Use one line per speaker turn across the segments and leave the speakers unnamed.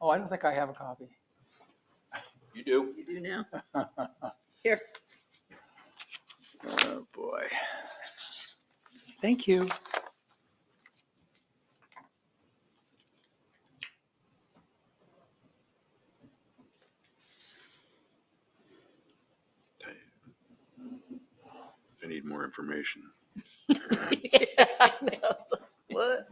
Oh, I don't think I have a copy.
You do?
You do now.
Oh,
Here,
Oh,
boy. Thank you.
I need more information.
Yeah, I know. What?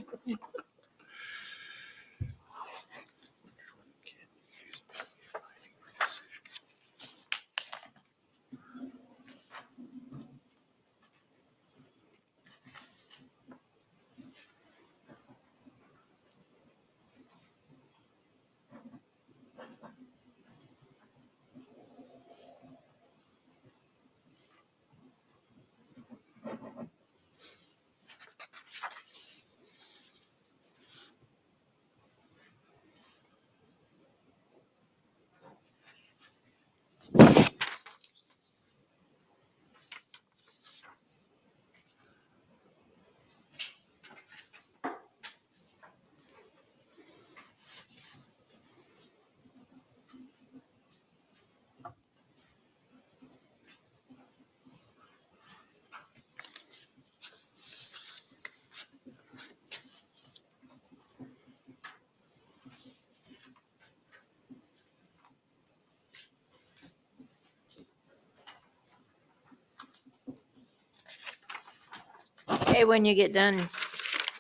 Hey, when you get done,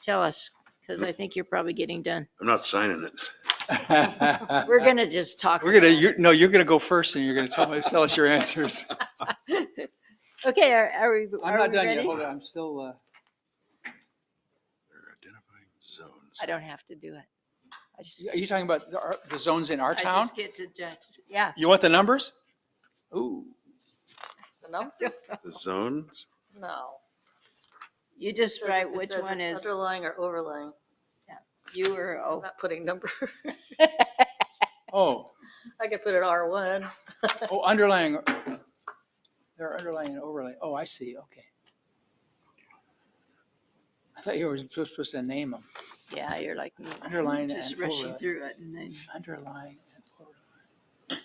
tell us, because I think you're probably getting done.
I'm not signing it.
We're gonna just talk.
We're gonna, you, no, you're gonna go first and you're gonna tell, us- tell us your answers.
Okay, are, are we,
I'm
are
not
we
done yet.
ready?
Hold on, I'm still, uh,
They're identifying zones.
I don't have to do it. I just,
are you talking about the, our- the zones in our
I
town?
just get to judge. Yeah.
You want the numbers? Ooh,
The numbers?
The zones?
No.
You just
Says-
write
it
which
says
one
it's
is
Underlying or overlying.
you or,
I'm
oh,
not putting number.
oh,
I could put it R1.
oh, underlying, they're underlying and overlay. Oh, I see, okay. I thought you were supposed supposed to name them.
yeah, you're like me.
Underline
Just
and
rushing
overlay.
through it and then,
Underlying and overlay.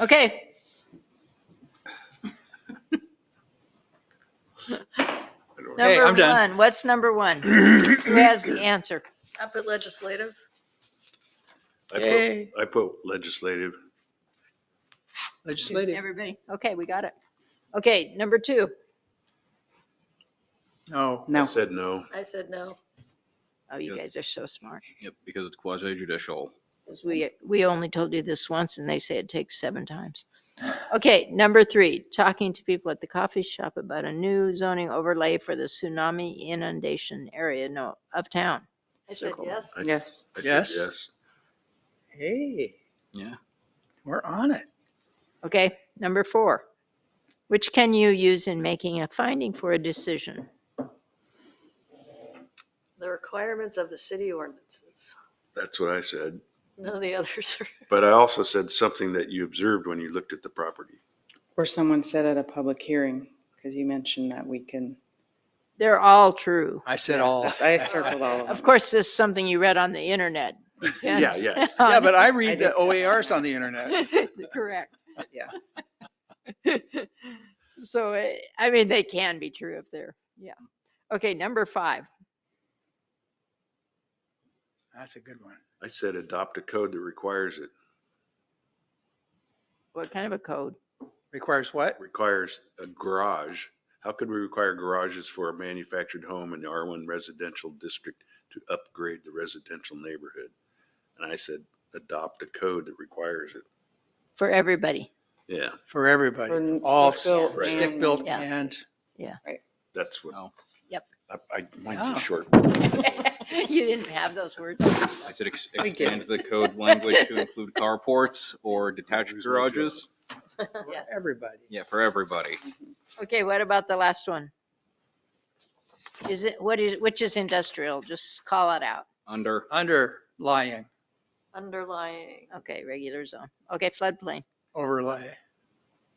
okay.
I don't-
Hey,
Number
I'm done.
one, what's number one? Who has the answer?
I put legislative.
I put- I put legislative.
Legislative.
Everybody, okay, we got it. Okay, number two,
No,
I
no.
said no.
I said no.
oh, you
Yes.
guys are so smart.
Yep, because it's quasi judicial.
'Cause we, we only told you this once and they say it takes seven times. Okay, number three, talking to people at the coffee shop about a new zoning overlay for the tsunami inundation area, no, of town.
I said
Circle.
yes.
I-
Yes.
I said
Yes.
Yes.
Hey,
Yeah.
we're on it.
Okay, number four, which can you use in making a finding for a decision?
The requirements of the city ordinances.
That's what I said.
None of the others are.
But I also said something that you observed when you looked at the property.
Or someone said at a public hearing, because you mentioned that we can,
They're all true.
I said all.
that's- I circled all of
Of
them.
course, this is something you read on the internet.
Yeah, yeah.
Yeah, but I read the
did.
OARs on the internet.
Correct.
Yeah.
So, eh, I mean, they can be true if they're, yeah. Okay, number five.
That's a good one.
I said adopt a code that requires it,
What kind of a code?
Requires what?
requires a garage. How could we require garages for a manufactured home in the R1 residential district to upgrade the residential neighborhood? And I said adopt a code that requires it.
For everybody.
Yeah,
For everybody,
For
all
stick-built
s- stick-built
Yeah.
and,
that's what.
Oh.
Yep.
I, I, mine's
Oh.
a short.
You didn't have those words.
I said ex-
We did.
expand the code language to include carports or detached
Who's like
garages.
for
Yeah.
everybody.
Yeah, for everybody.
Okay, what about the last one? Is it, what is, which is industrial? Just call it out.
Under,
Underlying
Underlying.
Okay, regular zone. Okay, floodplain.
overlay.